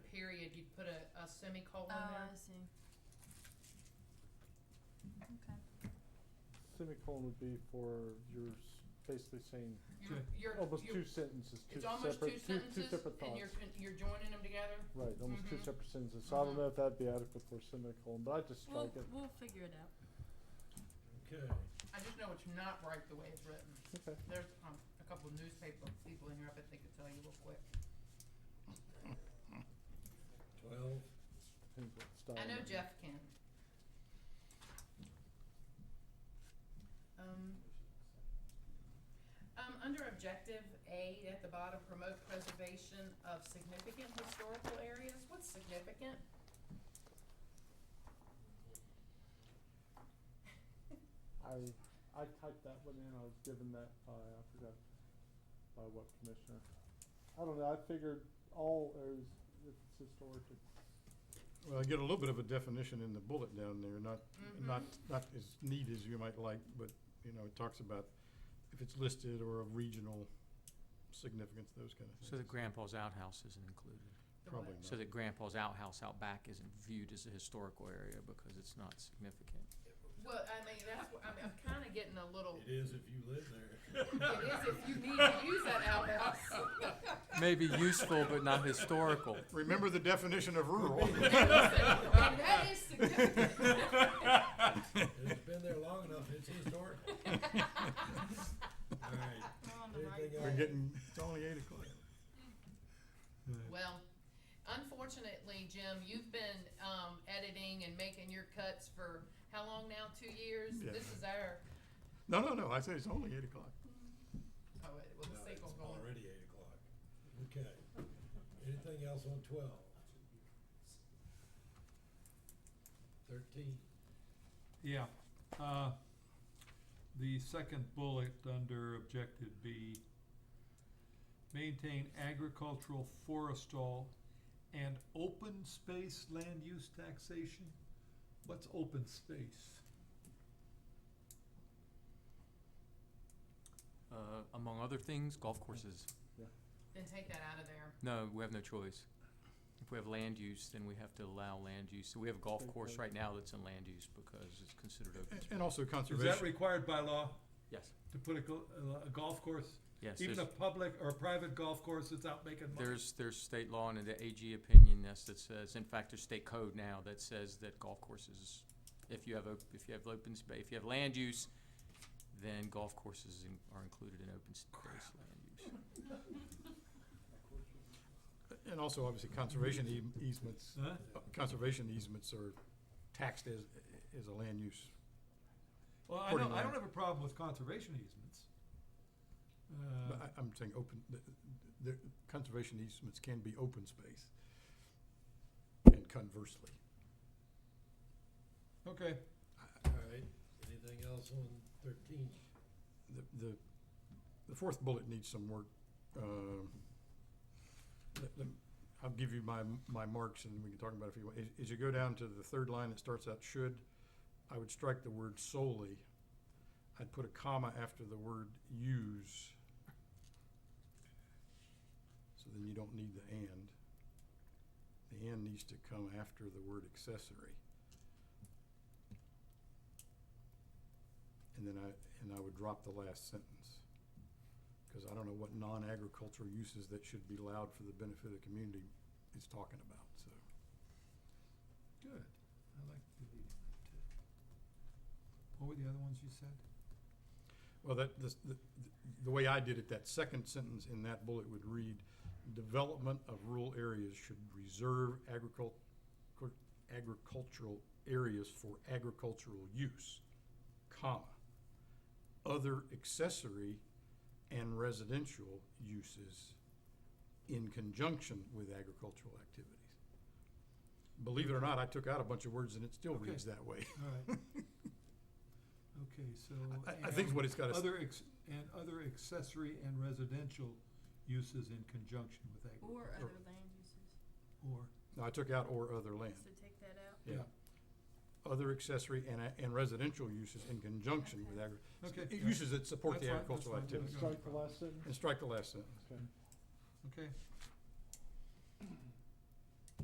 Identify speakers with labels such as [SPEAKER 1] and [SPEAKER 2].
[SPEAKER 1] period, you put a, a semicolon
[SPEAKER 2] Oh,
[SPEAKER 1] there.
[SPEAKER 2] I see. Okay.
[SPEAKER 3] Semicolon would be for your, s- basically saying
[SPEAKER 1] You're, you're,
[SPEAKER 3] almost
[SPEAKER 1] you're-
[SPEAKER 3] Oh, two sentences, two
[SPEAKER 1] it's almost two
[SPEAKER 3] separate, two, two
[SPEAKER 1] sentences,
[SPEAKER 3] separate
[SPEAKER 1] and you're,
[SPEAKER 3] thoughts.
[SPEAKER 1] con- you're joining them together?
[SPEAKER 3] Right, almost two
[SPEAKER 1] Mhm.
[SPEAKER 3] separate sentences. So I
[SPEAKER 1] Mhm.
[SPEAKER 3] don't know if that'd be adequate for a semicolon, but I just
[SPEAKER 2] We'll,
[SPEAKER 3] strike it.
[SPEAKER 2] we'll figure it out.
[SPEAKER 4] Okay,
[SPEAKER 1] I just know it's not right the way it's written.
[SPEAKER 3] Okay.
[SPEAKER 1] There's, um, a couple of newspaper people in here, I bet they could tell you real quick.
[SPEAKER 4] twelve,
[SPEAKER 3] Depends what style
[SPEAKER 1] I know
[SPEAKER 3] you-
[SPEAKER 1] Jeff can. Um, um, under objective A at the bottom, promote preservation of significant historical areas, what's significant?
[SPEAKER 3] I, I typed that one in, I was given that by, I forgot, by what commissioner. I don't know, I figured all areas, if it's historic, it's,
[SPEAKER 5] Well, I get a little bit of a definition in the bullet down there, not,
[SPEAKER 1] Mhm.
[SPEAKER 5] not, not as neat as you might like, but, you know, it talks about if it's listed or of regional significance, those kind of things.
[SPEAKER 6] So that grandpa's outhouse isn't included.
[SPEAKER 1] The
[SPEAKER 5] Probably
[SPEAKER 1] what?
[SPEAKER 6] So
[SPEAKER 5] not.
[SPEAKER 6] that grandpa's outhouse out back isn't viewed as a historical area because it's not significant.
[SPEAKER 1] Well, I mean, that's, wh- I'm, I'm kinda getting a little,
[SPEAKER 4] it is if you live there.
[SPEAKER 1] it is if you need to use that outhouse.
[SPEAKER 6] Maybe useful, but not historical.
[SPEAKER 5] Remember the definition of rural.
[SPEAKER 1] And that is significant.
[SPEAKER 4] It's been there long enough, it's historic. Alright,
[SPEAKER 2] We're on the right
[SPEAKER 4] anything
[SPEAKER 5] We're
[SPEAKER 4] else?
[SPEAKER 5] getting, it's only eight o'clock.
[SPEAKER 1] Well, unfortunately, Jim, you've been um, editing and making your cuts for how long now? Two years.
[SPEAKER 5] Yeah.
[SPEAKER 1] This is our.
[SPEAKER 5] No, no, no, I said it's only eight o'clock.
[SPEAKER 1] Oh, it was
[SPEAKER 4] No,
[SPEAKER 1] a
[SPEAKER 4] it's
[SPEAKER 1] sequel going.
[SPEAKER 4] already eight o'clock. Okay, anything else on twelve? Thirteen,
[SPEAKER 7] Yeah, uh, the second bullet under objective B. Maintain agricultural, forestal, and open space land use taxation. What's open space?
[SPEAKER 6] Uh, among other things, golf courses.
[SPEAKER 1] Then take that out of there.
[SPEAKER 6] No, we have no choice. If we have land use, then we have to allow land use. So we have a golf course right now that's in land use because it's considered open.
[SPEAKER 5] A- And also
[SPEAKER 7] Is that
[SPEAKER 5] conservation.
[SPEAKER 7] required by law
[SPEAKER 6] Yes,
[SPEAKER 7] to put a go- a golf course,
[SPEAKER 6] yes.
[SPEAKER 7] even a
[SPEAKER 6] there's-
[SPEAKER 7] public or a private golf course that's out making money?
[SPEAKER 6] There's, there's state law and the AG opinion that's, that says, in fact, there's state code now that says that golf courses, if you have, op- if you have open space, if you have land use, then golf courses in- are included in open space land use.
[SPEAKER 5] And also obviously conservation eas- easements,
[SPEAKER 7] Huh?
[SPEAKER 5] uh, conservation easements are taxed as, as a land use.
[SPEAKER 7] Well, I
[SPEAKER 5] According
[SPEAKER 7] don't,
[SPEAKER 5] to
[SPEAKER 7] I don't
[SPEAKER 5] my-
[SPEAKER 7] have a problem with conservation easements. Uh,
[SPEAKER 5] But I, I'm saying open, the, the conservation easements can be open space. And conversely,
[SPEAKER 7] Uh, Okay.
[SPEAKER 4] alright, anything else on thirteen?
[SPEAKER 5] the, the, the fourth bullet needs some work. Um, let- let- I'll give you my, my marks and we can talk about it if you want. As, as you go down to the third line that starts out should, I would strike the word solely. I'd put a comma after the word use. So then you don't need the and. The and needs to come after the word accessory. And then I, and I would drop the last sentence. Cause I don't know what non-agricultural uses that should be allowed for the benefit of the community is talking about, so.
[SPEAKER 7] Good. I like deleting that too. What were the other ones you said?
[SPEAKER 5] Well, that, this, the, the way I did it, that second sentence in that bullet would read, development of rural areas should reserve agricult, cur- agricultural areas for agricultural use, comma, other accessory and residential uses in conjunction with agricultural activities. Believe it or not, I took out a bunch of words and it still
[SPEAKER 7] Okay.
[SPEAKER 5] reads that way.
[SPEAKER 7] All right. Okay, so.
[SPEAKER 5] I, I think
[SPEAKER 7] and
[SPEAKER 5] what it's got is,
[SPEAKER 7] Other ex, and other accessory and residential uses in conjunction with agri-
[SPEAKER 2] Or other land uses.
[SPEAKER 7] or,
[SPEAKER 5] no, I took out or other land.
[SPEAKER 2] So take that out.
[SPEAKER 5] Yeah. other accessory and, a- and residential uses in conjunction with agri,
[SPEAKER 7] okay.
[SPEAKER 5] uses that support
[SPEAKER 7] That's
[SPEAKER 5] the
[SPEAKER 7] fine, that's
[SPEAKER 5] agricultural
[SPEAKER 7] fine.
[SPEAKER 5] activity.
[SPEAKER 7] That's
[SPEAKER 3] strike the last sentence.
[SPEAKER 5] And strike the last sentence.
[SPEAKER 7] Okay,